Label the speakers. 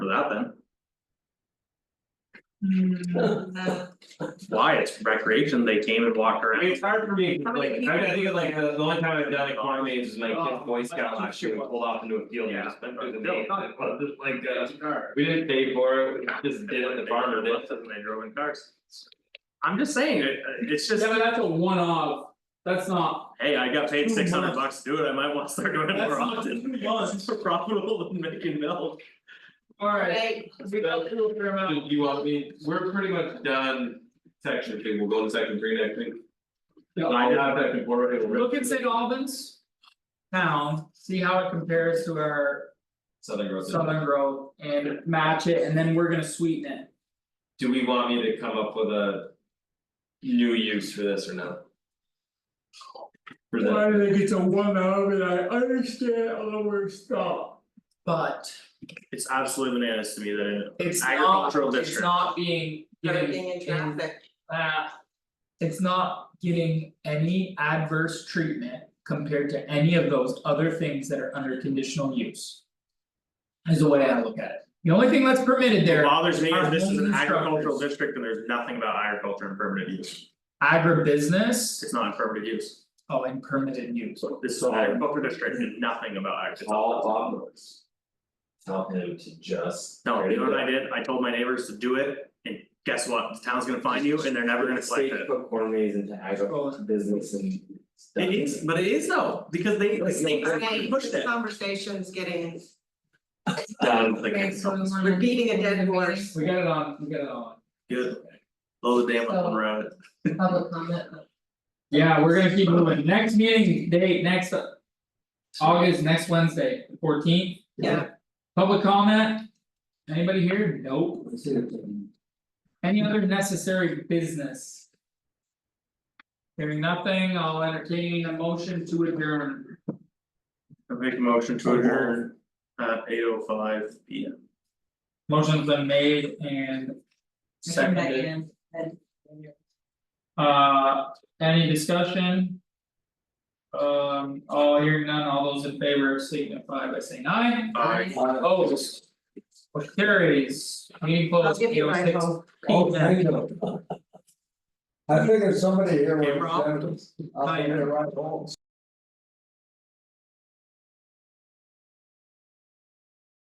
Speaker 1: that then,
Speaker 2: Mm-hmm.
Speaker 3: Mm,
Speaker 1: why, it's recreation, they came and walked
Speaker 4: I mean,
Speaker 1: around.
Speaker 4: it's hard for me,
Speaker 3: How many
Speaker 4: like, I think of, like the the only time I've done it correctly is my
Speaker 1: Oh,
Speaker 4: kid boy
Speaker 1: I
Speaker 4: scout
Speaker 1: keep
Speaker 4: last year, we
Speaker 1: sure.
Speaker 4: pulled off into a field and just went through the maze.
Speaker 1: Like, uh.
Speaker 4: We didn't pay for it, we just did it, the farmer did.
Speaker 1: And they drove in cars. I'm just saying, it it's just,
Speaker 5: Yeah, but that's a one off, that's not,
Speaker 1: hey, I got paid
Speaker 5: Two
Speaker 1: six hundred bucks
Speaker 5: months.
Speaker 1: to do it, I might wanna start doing it
Speaker 5: That's
Speaker 1: more
Speaker 5: not
Speaker 1: often.
Speaker 5: two months.
Speaker 1: It's more profitable than making milk.
Speaker 5: alright,
Speaker 3: okay,
Speaker 5: we got a little fair amount.
Speaker 4: You want me, we're pretty much done section two, we'll go to section three next week. I
Speaker 5: Yeah.
Speaker 4: have that before. it'll-
Speaker 5: Look "Oh, at St. Albans. Town, see how it compares to our
Speaker 4: Southern Grove.
Speaker 5: Southern Grove and match it, and then we're gonna sweeten it.
Speaker 4: Do we want me to come up with a? New use for this or no? For the,
Speaker 5: do they get to one hour and I understand all we're stop? But
Speaker 1: It's absolutely bananas to me that in
Speaker 5: it's not,
Speaker 1: agricultural district.
Speaker 5: it's not being given
Speaker 3: everything in traffic.
Speaker 5: that. It's not getting any adverse treatment compared to any of those other things that are under conditional use. Is the way I look at it, the only thing that's permitted
Speaker 1: What
Speaker 5: there,
Speaker 1: bothers me is this is an
Speaker 5: Our homes and
Speaker 1: agricultural
Speaker 5: structures.
Speaker 1: district and there's nothing about agriculture and permitted use,
Speaker 5: agribusiness,
Speaker 1: it's not in permitted use,
Speaker 5: oh, and permitted use.
Speaker 1: this is an agricultural district and nothing about agriculture.
Speaker 4: all farmers. Tell him to just.
Speaker 1: No, you know what I did, I told my neighbors to do it, and guess what, the town's gonna find you and they're never gonna collect
Speaker 6: State
Speaker 1: it.
Speaker 6: put corn maze into agro business and. stuff.
Speaker 1: It is, but it is though, because they, the state
Speaker 3: Okay,
Speaker 1: pushed
Speaker 3: this
Speaker 1: it.
Speaker 3: conversation's getting
Speaker 1: Done.
Speaker 2: Okay, Um, so we wanna-
Speaker 3: Repeating a dead horse.
Speaker 5: We got it on, we got it on.
Speaker 1: Good. Blow the dam up one road.
Speaker 2: Public comment.
Speaker 5: Yeah, we're gonna keep moving, next meeting date, next. uh, August, next Wednesday, fourteenth.
Speaker 3: Yeah.
Speaker 5: Public comment? Anybody here? Nope.
Speaker 6: Let's see if we
Speaker 5: Any other necessary business? Hearing nothing, I'll entertain a motion to adjourn.
Speaker 1: I make a motion to adjourn at eight oh five P M.
Speaker 5: Motion's been made and. Seconded,
Speaker 2: Megan, and-
Speaker 5: uh, any discussion? Um, all hearing none, all those in favor signify by saying aye.
Speaker 1: Aye.
Speaker 6: can- Uh,
Speaker 5: Opposed. Motion carries, meeting
Speaker 3: I'll
Speaker 5: closed,
Speaker 3: give
Speaker 5: eight
Speaker 3: you
Speaker 5: oh
Speaker 3: my
Speaker 5: six.
Speaker 3: vote.
Speaker 7: Oh, thank you. I figured somebody here would
Speaker 1: Hey, Rob.
Speaker 7: have done it. I'll
Speaker 5: Hi.
Speaker 7: figure it right home.